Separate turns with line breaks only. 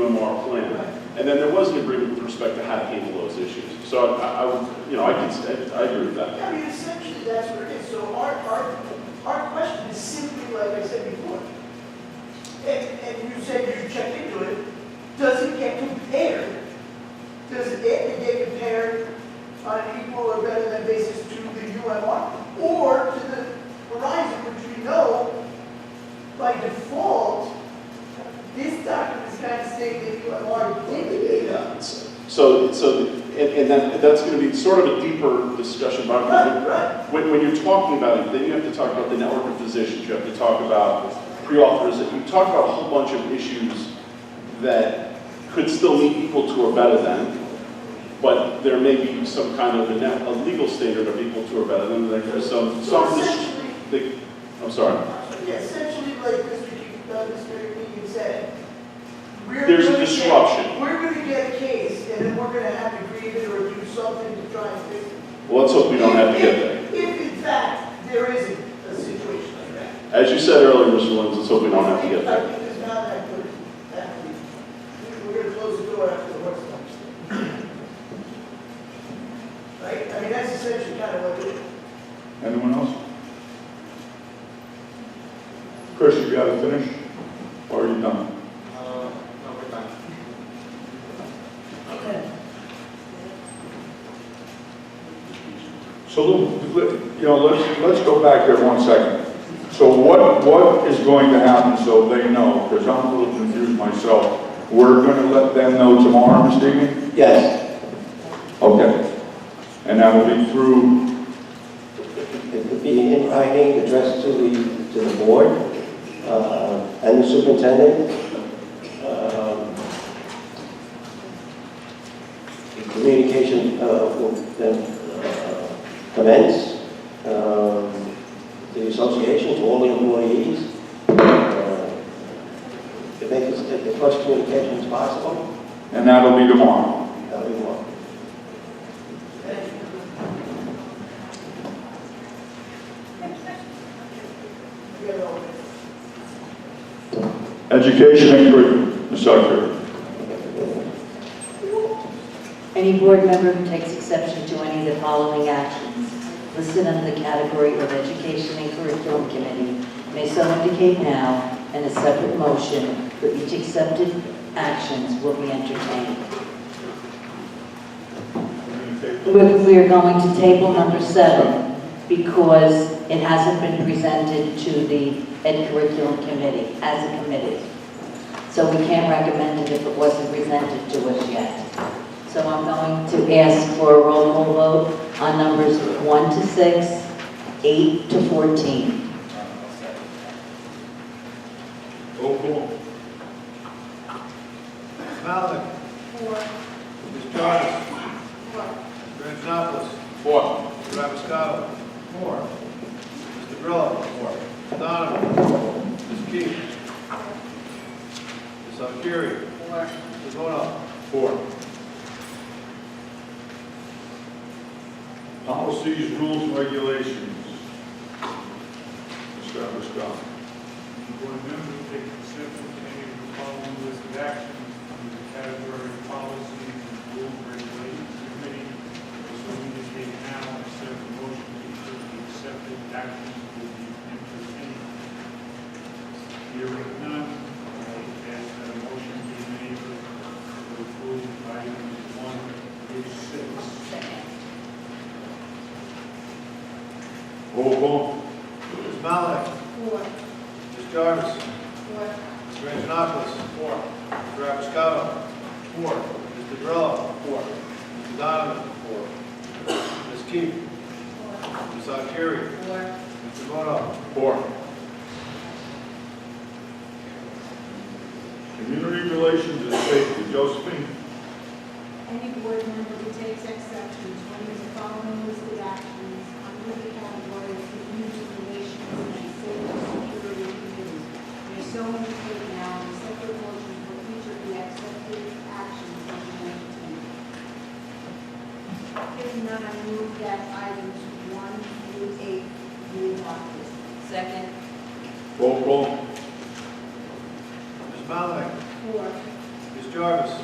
UMR plan. And then there was an agreement with respect to how to handle those issues. So I, I would, you know, I can, I I agree with that.
Yeah, I mean, essentially, that's what it is. So our, our, our question is simply, like I said before, and, and you said you checked into it, does it get compared? Does it get compared on an equal or better than basis to the UMR? Or to the Verizon, which we know by default, this document is kind of saying that UMR did the data.
So, so, and, and that, that's gonna be sort of a deeper discussion, but
Right, right.
when, when you're talking about it, then you have to talk about the network of physicians, you have to talk about pre-authorization, you talk about a whole bunch of issues that could still be equal to or better than, but there may be some kind of a, net- a legal standard of equal to or better than, like, there's some,
So
some,
essentially,
the- I'm sorry.
Yeah, essentially, like Mr. Keith, uh, Mr. Keegan said, we're.
There's a
gonna get-
disruption.
We're gonna get a case, and then we're gonna have to grieve it or do something to try and fix it.
Well, let's hope we don't have to get
If-
there.
If, in fact, there isn't a situation like that.
As you said earlier, Mr. Lins, let's hope we don't have to get there.
I think it's not that good, actually. We- We're gonna close the door after the horse comes. Right, I mean, that's essentially kind of what it is.
Anyone else? Chris, you gotta finish, or are you done?
Uh, no, we're done.
So, let- let- you know, let's, let's go back here one second. So what, what is going to happen so they know, because I'm a little confused myself. We're gonna let them know tomorrow, Mr. Egan?
Yes,
Okay. And that will be through,
it could be in writing addressed to the, to the board uh, and the superintendent. Um, the Communication uh, will then uh, commence. Um, The association to all the employees. uh, To make as as much communication as possible,
and that'll be tomorrow.
that we want.
You know,
Education included, Ms. Secretary.
Any board member who takes exception to any of the following actions listed under the category of Education and Curriculum Committee may so indicate now, and a separate motion for each accepted actions will be entertained. We're- We are going to table number seven because it hasn't been presented to the Ed Curriculum Committee as a committee. So we can't recommend it if it wasn't presented to us yet. So I'm going to ask for a roll call vote on numbers one to six, eight to 14.
Roll call.
Malik. Four. Ms. Jarvis. Four. Mr. Antonopoulos.
Four.
Mr. Rappiscato. Four. Mr. Grillo. Four. Mr. Donovan. Four. Ms. Keith. Ms. Salkiri. Four. Mr. Bono.
Four. Policies, rules, and regulations. Mr. Scott.
The board members take exception to any of the following list of actions under the category of policies and rules and regulations committee, as we indicate now, except the motion to approve the accepted actions will be entertained. Hearing none, I ask that a motion be made to approve items one through six.
Roll call.
Ms. Malik.
Four.
Ms. Jarvis.
Four.
Mr. Antonopoulos. Four. Mr. Rappiscato. Four. Mr. Grillo. Four. Mr. Donovan. Four. Ms. Keith. Ms. Salkiri. Four. Mr. Bono.
Four. Community relations and safety, Josephine.
Any board member who takes exception to any of the following listed actions under the category of community relations and safety and security committees may so indicate now in a separate motion for each of the accepted actions on the agenda. If not, I move that items one through eight be adopted.
Second.
Roll call.
Ms. Malik.
Four.
Ms. Ms. Jarvis.